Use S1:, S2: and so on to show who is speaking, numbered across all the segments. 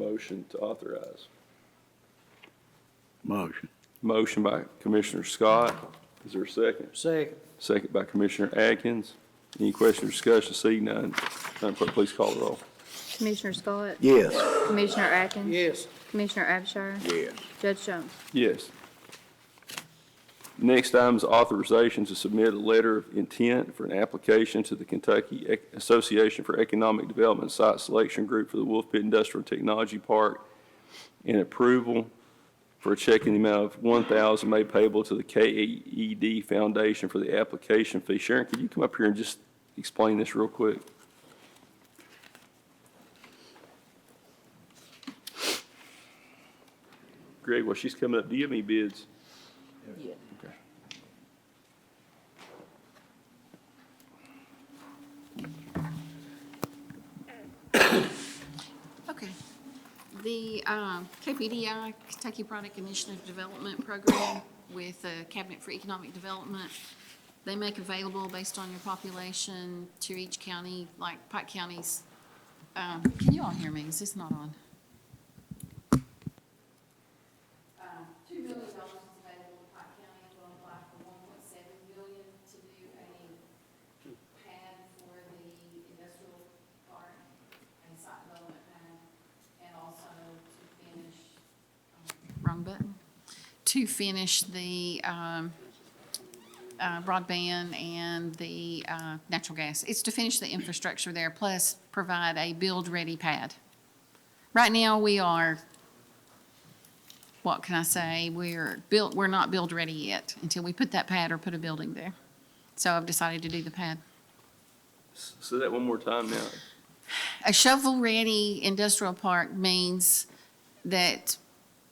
S1: motion to authorize.
S2: Motion.
S1: Motion by Commissioner Scott. Is there a second?
S3: Second.
S1: Second by Commissioner Atkins. Any question or discussion? Seeing none, Madam Clerk, please call the roll.
S4: Commissioner Scott?
S2: Yes.
S4: Commissioner Atkins?
S3: Yes.
S4: Commissioner Abshire?
S2: Yes.
S4: Judge Jones?
S1: Yes. Next item is authorization to submit a letter of intent for an application to the Kentucky Ec- Association for Economic Development Site Selection Group for the Wolf Pit Industrial Technology Park and approval for a check in the amount of one thousand made payable to the KED Foundation for the application fee. Sharon, could you come up here and just explain this real quick? Greg, while she's coming up, do you have any bids?
S5: Yeah.
S1: Okay.
S5: Okay. The uh, KPDI, Kentucky Product Initiative Development Program with uh, Cabinet for Economic Development, they make available based on your population to each county, like Pike County's. uh, Can you all hear me? Is this not on? Uh, Two million dollars is available to Pike County, will apply for one point seven million to do a pad for the industrial park and site development plan, and also to finish. um, Wrong button. To finish the um, uh, broadband and the uh, natural gas. It's to finish the infrastructure there, plus provide a build-ready pad. Right now, we are, what can I say? We're built, we're not build-ready yet until we put that pad or put a building there. So I've decided to do the pad.
S1: S- Say that one more time now.
S5: A shovel-ready industrial park means that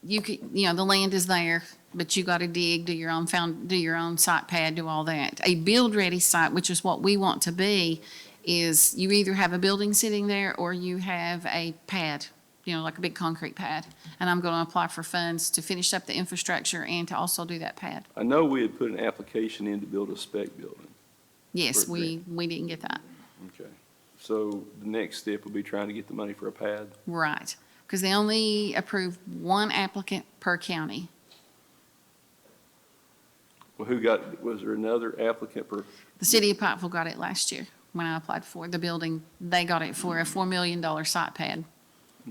S5: you could, you know, the land is there, but you gotta dig, do your own found, do your own site pad, do all that. A build-ready site, which is what we want to be, is you either have a building sitting there or you have a pad, you know, like a big concrete pad. And I'm gonna apply for funds to finish up the infrastructure and to also do that pad.
S1: I know we had put an application in to build a spec building.
S5: Yes,
S1: For
S5: we, we didn't get that.
S1: Okay. So the next step will be trying to get the money for a pad.
S5: Right, because they only approved one applicant per county.
S1: Well, who got, was there another applicant for,
S5: The city of Pikeville got it last year when I applied for the building. They got it for a four million dollar site pad.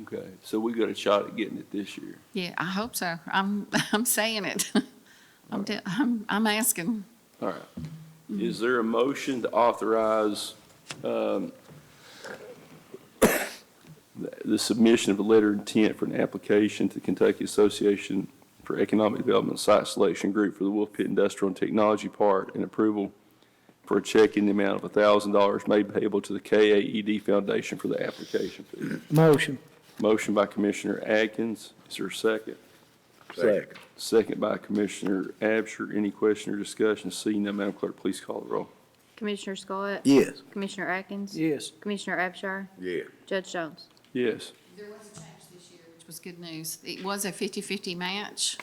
S1: okay, so we got a shot at getting it this year.
S5: Yeah, I hope so. I'm, I'm saying it. I'm, te- I'm, I'm asking.
S1: All right. Is there a motion to authorize um, the the submission of a letter of intent for an application to the Kentucky Association for Economic Development Site Selection Group for the Wolf Pit Industrial and Technology Park and approval for a check in the amount of $1,000 made payable to the KAED Foundation for the application fee?
S3: Motion.
S1: Motion by Commissioner Atkins. Is there a second?
S2: Second.
S1: Second by Commissioner Abshur. Any question or discussion? Seeing none, Madam Clerk, please call the roll.
S4: Commissioner Scott?
S2: Yes.
S4: Commissioner Atkins?
S3: Yes.
S4: Commissioner Abshire?
S2: Yeah.
S4: Judge Jones?
S1: Yes.
S5: There was a change this year, which was good news. It was a 50-50 match.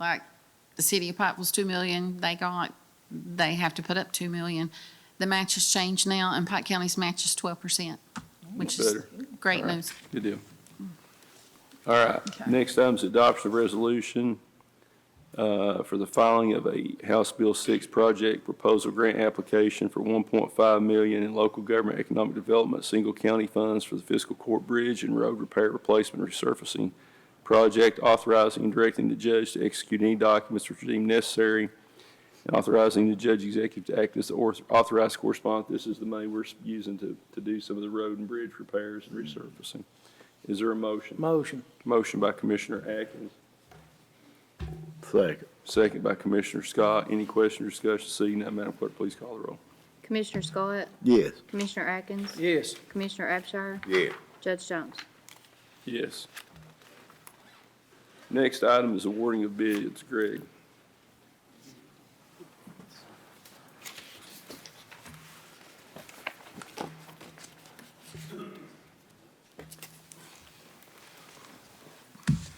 S5: Like, the city of Pikeville's two million, they got, they have to put up two million. The match has changed now, and Pike County's match is twelve percent, which is
S1: Better.
S5: great
S1: All right.
S5: news.
S1: Good deal. All right,
S5: Okay.
S1: next item is adoption of resolution uh, for the filing of a House Bill 6 project proposal grant application for 1.5 million in local government economic development, single county funds for the fiscal court bridge and road repair replacement resurfacing project, authorizing and directing the judge to execute any documents which are deemed necessary, and authorizing the judge executive to act as the author- authorized correspondent. This is the money we're using to, to do some of the road and bridge repairs and resurfacing. Is there a motion?
S3: Motion.
S1: Motion by Commissioner Atkins,
S2: Second.
S1: second by Commissioner Scott. Any question or discussion? Seeing none, Madam Clerk, please call the roll.
S4: Commissioner Scott?
S2: Yes.
S4: Commissioner Atkins?
S3: Yes.
S4: Commissioner Abshire?
S2: Yeah.
S4: Judge Jones?
S1: Yes. Next item is awarding of bids. Greg,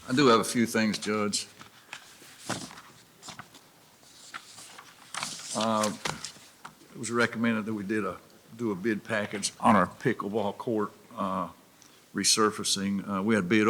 S6: I do have a few things, Judge. Uh, It was recommended that we did a, do a bid package on our pickleball court uh, resurfacing. Uh, We had bid